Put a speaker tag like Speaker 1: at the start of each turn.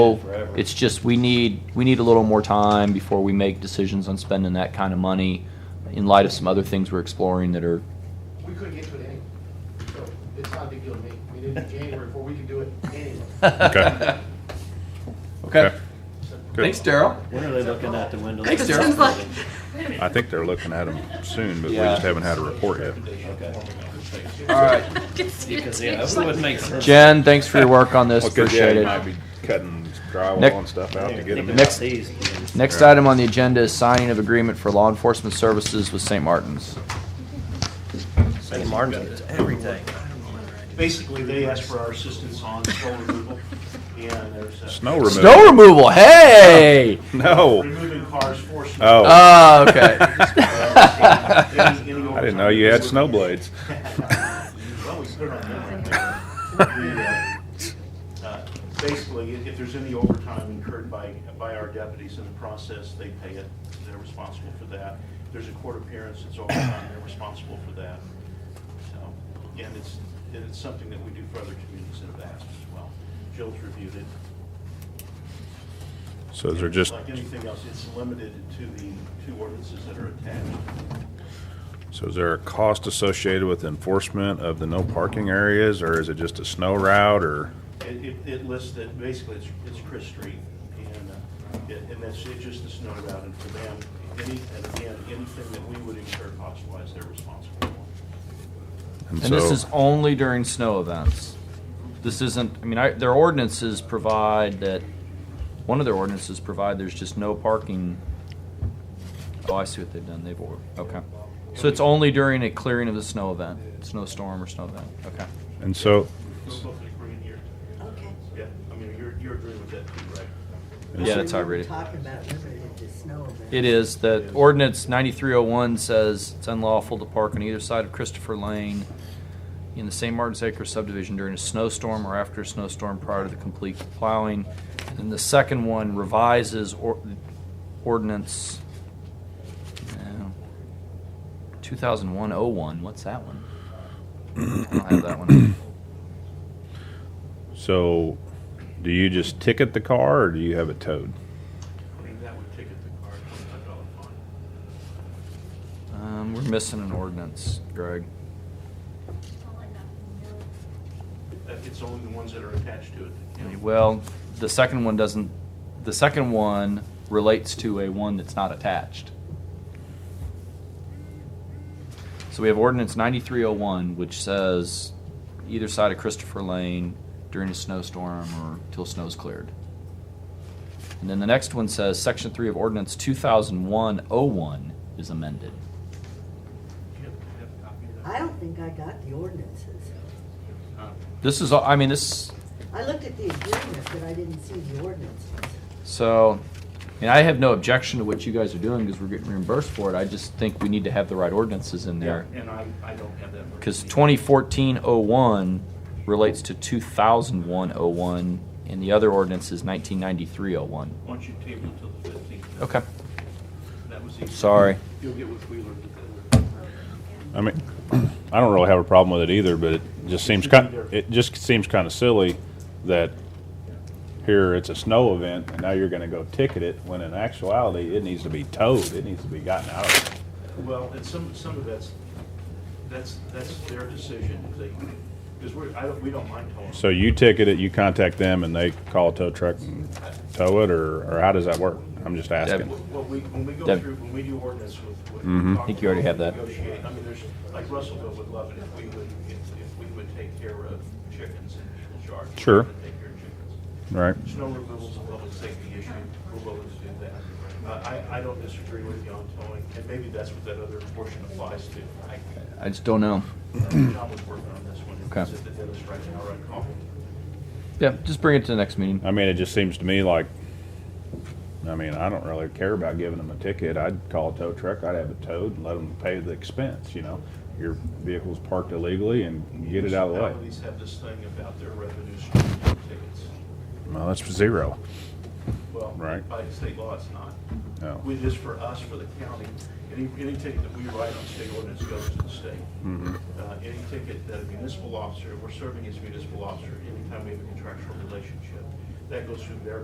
Speaker 1: Forever.
Speaker 2: It's just, we need, we need a little more time before we make decisions on spending that kind of money in light of some other things we're exploring that are,
Speaker 3: We couldn't get to it anyway, so it's not a big deal to me. I mean, it's January before we could do it anyway.
Speaker 4: Okay.
Speaker 5: Okay.
Speaker 4: Good.
Speaker 5: Thanks, Daryl.
Speaker 1: When are they looking at the window?
Speaker 5: Thanks, Daryl.
Speaker 6: Sounds like,
Speaker 4: I think they're looking at them soon, but we
Speaker 5: Yeah.
Speaker 4: just haven't had a report yet.
Speaker 1: Okay.
Speaker 5: All right.
Speaker 6: Gets you
Speaker 1: Because, yeah,
Speaker 6: too.
Speaker 1: that would make sense.
Speaker 2: Jen, thanks for your work on this,
Speaker 4: Well, 'cause, yeah,
Speaker 2: appreciate
Speaker 4: you
Speaker 2: it.
Speaker 4: might be cutting
Speaker 2: Nick-
Speaker 4: drywall and stuff out to get them in.
Speaker 2: Next-
Speaker 1: Next.
Speaker 2: Next item on the agenda is signing of agreement for law enforcement services with St. Martin's.
Speaker 1: St. Martin's gets everything.
Speaker 3: Basically, they asked for our assistance on snow removal, and there's. uh,
Speaker 4: Snow removal.
Speaker 2: Snow removal, hey!
Speaker 4: No.
Speaker 3: Removing cars for snow.
Speaker 4: Oh,
Speaker 2: Oh, okay. Oh,
Speaker 3: I
Speaker 4: I didn't know you had snow blades.
Speaker 3: Well, we put it on there. The, uh, Basically, if if there's any overtime incurred by, by our deputies in the process, they pay it, they're responsible for that. If there's a court appearance, it's overtime, they're responsible for that. So, And it's, and it's something that we do for other communities that have asked as well. Jill's reviewed it.
Speaker 4: So is there just,
Speaker 3: Like anything else, it's limited to the two ordinances that are attached.
Speaker 4: so is there a cost associated with enforcement of the no parking areas, or is it just a snow route, or?
Speaker 3: It, it, it lists that, basically, it's, it's Chris Street, and, uh, it- and that's, it's just the snow route, and for them, any, and again, anything that we would incur cost-wise, they're responsible for.
Speaker 2: And this
Speaker 4: so-
Speaker 2: is only during snow events. This isn't, I mean, I, their ordinances provide that, one of their ordinances provide there's just no parking. Oh, I see what they've done, they've, or- okay. So it's only during a clearing of the snow event, snowstorm or snow event, okay.
Speaker 4: And so,
Speaker 3: We're both agreeing here.
Speaker 6: Okay.
Speaker 3: Yeah, I mean, you're, you're agreeing with that too, right?
Speaker 2: Yeah, that's how I read it.
Speaker 7: Talking about limited to snow events.
Speaker 2: It is, that ordinance ninety-three oh one says it's unlawful to park on either side of Christopher Lane in the St. Martin's Acre subdivision during a snowstorm or after a snowstorm prior to the complete plowing. And the second one revises or, ordinance uh, two thousand one oh one, what's that one? I don't have that one.
Speaker 4: so do you just ticket the car, or do you have it towed?
Speaker 3: I mean, that would ticket the car, twenty-five dollar fine.
Speaker 2: Um, we're missing an ordinance, Greg.
Speaker 3: That, it's only the ones that are attached to it. that count.
Speaker 2: Well, the second one doesn't, the second one relates to a one that's not attached. So we have ordinance ninety-three oh one, which says either side of Christopher Lane during a snowstorm or till snow's cleared. And then the next one says, section three of ordinance two thousand one oh one is amended.
Speaker 3: Do you have- have a copy of that?
Speaker 7: I don't think I got the ordinances.
Speaker 2: This is, all- I mean, this,
Speaker 7: I looked at the agreement, but I didn't see the ordinances.
Speaker 2: So, and I have no objection to what you guys are doing because we're getting reimbursed for it. I just think we need to have the right ordinances in there.
Speaker 3: Yeah, And I, I don't have that.
Speaker 2: Because 2014-01 relates to 2001-01 and the other ordinance is 1993-01.
Speaker 3: Why don't you table it till the fifteenth?
Speaker 2: Okay,
Speaker 3: That was easy.
Speaker 2: sorry.
Speaker 3: You'll get with Wheeler. to that.
Speaker 4: I mean, I don't really have a problem with it either, but it just seems kind, it just seems kind of silly that here it's a snow event and now you're gonna go ticket it when in actuality it needs to be towed, it needs to be gotten out of.
Speaker 3: Well, and some, some of that's, that's, that's their decision, because we're, I don't, we don't mind towing.
Speaker 4: So you ticket it, you contact them and they call a tow truck and tow it or, or how does that work? I'm just asking.
Speaker 3: What we, when we go
Speaker 2: Deb. Mm-hmm.
Speaker 3: through, when we do ordinance with. with-
Speaker 2: I think you already have that.
Speaker 3: Negotiate, I mean, there's, like Russellville would love it if we would, if, if we would take care of chickens in people's yards. We're
Speaker 4: Sure.
Speaker 3: gonna Take care of chickens.
Speaker 4: Right.
Speaker 3: Snow removal's a public safety issue, we're willing to do that. Uh, I, I don't disagree with you on towing, and maybe that's what that other portion applies to. I, uh,
Speaker 2: I just don't know.
Speaker 3: John was working on this one.
Speaker 2: Okay.
Speaker 3: It's at the dentist right now, right, Carl?
Speaker 2: Yeah, just bring it to the next meeting.
Speaker 4: I mean, it just seems to me like, I mean, I don't really care about giving them a ticket. I'd call a tow truck, I'd have it towed and let them pay the expense, you know? Your vehicle's parked illegally and get it out of the way.
Speaker 3: Municipalities have this thing about their revenue stream from tickets.
Speaker 4: Well, that's zero.
Speaker 3: Well,
Speaker 4: Right.
Speaker 3: by state law, it's not.
Speaker 4: No.
Speaker 3: We, just for us, for the county, any, any ticket that we write on state ordinance goes to the state.
Speaker 4: Mm-hmm.
Speaker 3: Uh, any ticket that a municipal officer, we're serving as a municipal officer, anytime we have a contractual relationship, that goes through their